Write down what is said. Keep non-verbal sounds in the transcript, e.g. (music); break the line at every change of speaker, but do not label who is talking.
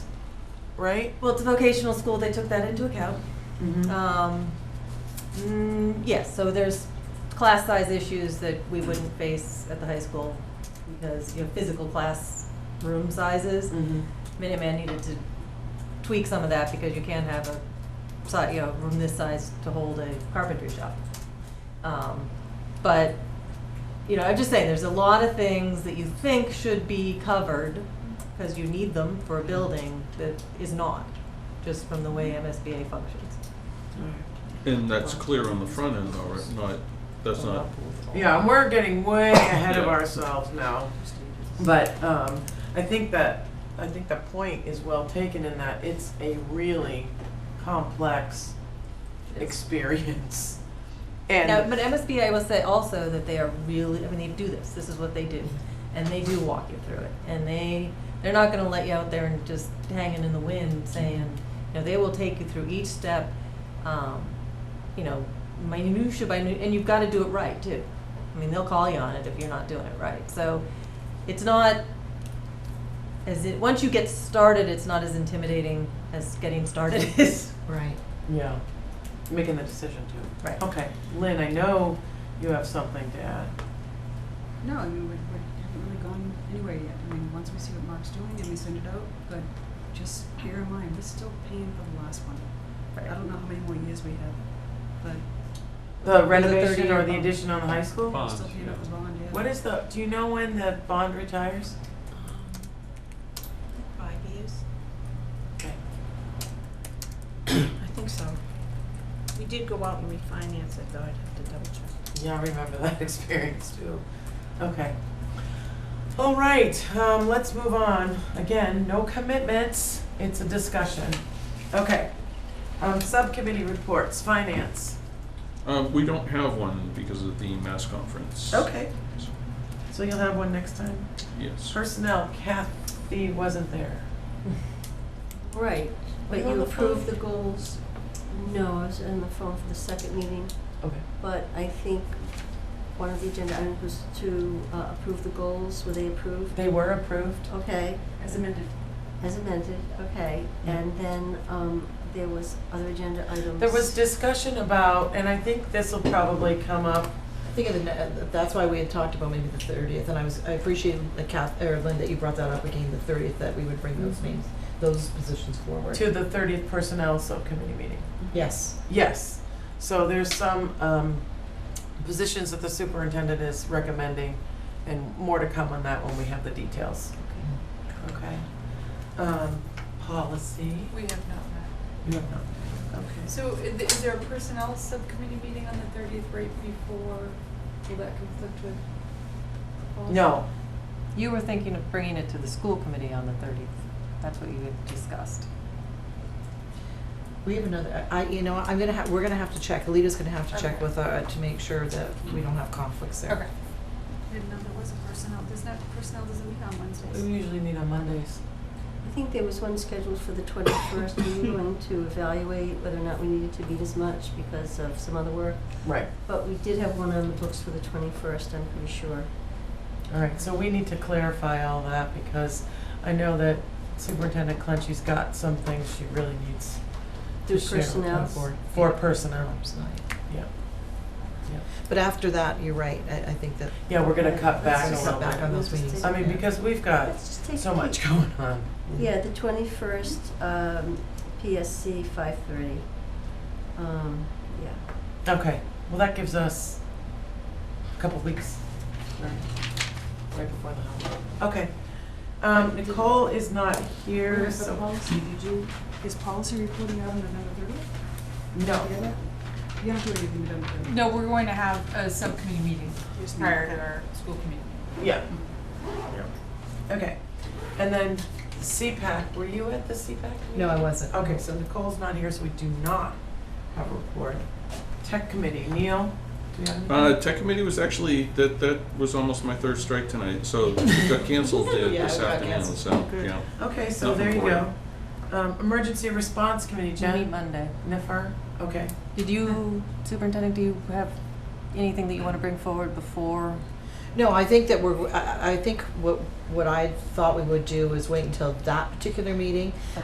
right?
Well, it's a vocational school, they took that into account.
Mm-hmm.
Um, mm, yes, so there's class size issues that we wouldn't face at the high school because, you know, physical class room
Mm-hmm.
sizes. Minuteman needed to tweak some of that because you can't have a, si- you know, room this size to hold a carpentry shop. Um, But, you know, I'm just saying, there's a lot of things that you think should be covered because you need them for a building that is not, just from the way MSBA functions.
And that's clear on the front end though, right? Not, that's not,
Yeah, and we're getting way ahead of
Yeah.
ourselves now. But um, I think that I think the point is well taken in that it's a really complex experience. And
Now, but MSBA will say also that they are really, I mean, they do this, this is what they do. And they do walk you through it. And they, they're not gonna let you out there and just hanging in the wind saying, you know, they will take you through each step, um, you know, minutia by, nu- and you've gotta do it right too. I mean, they'll call you on it if you're not doing it right. So it's not, as it, once you get started, it's not as intimidating as getting started (laughs) is.
Right.
yeah, making the decision too.
Right.
Okay, Lynn, I know you have something to add.
No, I mean, we, we haven't really gone anywhere yet. I mean, once we see what Mark's doing and we send it out, but just bear in mind, we're still paying for the last one. I don't know how many more years we have, but
The
Or the
renovation or
30-year
the
bond.
addition on the high school?
we're
Bonds,
still paying off the bond, yeah.
What is the, do you know when the bond retires?
Five years?
Okay.
I think so. We did go out and refinance it, though, I'd have to double check.
Yeah, I remember (laughs) that experience too. Okay. All right, um, let's move on. Again, no commitments, it's a discussion. Okay. Um, subcommittee reports, finance.
um, we don't have one because of the mass conference.
Okay. So you'll have one next time.
Yes.
Personnel, Kathy wasn't there.
Right, but
Were you on
you
the phone?
approved the goals. No, I was on the phone for the second meeting,
Okay.
but I think one of the agenda items was to uh, approve the goals. Were they approved?
They were approved?
Okay,
As amended.
as amended, okay. And then um, there was other agenda items.
There was discussion about, and I think this will probably come up,
I think in the, uh, that's why we had talked about maybe the thirtieth, and I was, I appreciate that Kath, or Lynn, that you brought that up again, the thirtieth, that we would bring those names, those positions forward.
to the thirtieth personnel subcommittee meeting.
Yes.
Yes, so there's some um, positions that the superintendent is recommending, and more to come on that when we have the details. Okay. Um, Policy,
We have not met.
you have not, okay.
So i- th- is there a personnel subcommittee meeting on the thirtieth right before, will that conflict with? the policy?
No,
You were thinking of bringing it to the school committee on the thirtieth, that's what you had discussed.
We have another, I, you know, I'm gonna have, we're gonna have to check, Alita's gonna have to check
Okay.
with, uh, to make sure that we don't have conflicts there.
Okay. Didn't know there was a personnel, does not, personnel doesn't meet on
we
Wednesdays.
usually meet on Mondays.
I think there was one scheduled for the twenty-first. We were going to evaluate whether or not we needed to meet as much because of some other work.
Right.
But we did have one on the books for the twenty-first, I'm pretty sure.
All right, so we need to clarify all that, because I know that Superintendent Clenchey's got some things she really needs to
Through
share with the
personnel.
board. For personnel,
Perhaps not.
yeah. Yeah.
But after that, you're right, I, I think that.
Yeah, we're gonna cut back a
Let's
little
cut back on
bit.
those meetings.
I mean, because we've got
Let's just take
so
a peek.
much going on.
Yeah, the twenty-first, um, PSC five thirty. Um, yeah,
Okay, well, that gives us a couple weeks. Right before the holiday. Okay. Um, Nicole is not here,
Where's the
so.
policy? Did you, is policy reporting out on November thirtieth?
No.
You don't do anything November thirtieth.
No, we're going to have a subcommittee meeting
Just not-
our school committee. Mm-hmm.
Yeah. Okay. And then CPAC, were you at the CPAC? meeting?
No, I wasn't.
Okay, so Nicole's not here, so we do not have a report. Tech committee, Neil, do you have anything?
Uh, tech committee was actually, that, that was almost my third strike tonight, so it got
(laughs)
canceled uh,
Yeah,
this
it got
afternoon,
canceled.
so,
Good.
yeah.
Okay, so
Nothing
there you
for
go. Um, emergency response committee,
We meet
Jen,
Monday.
Niffer, okay.
Did you, Superintendent, do you have anything that you want to bring forward before?
No, I think that we're, I, I- I think what, what I thought we would do is wait until that particular meeting,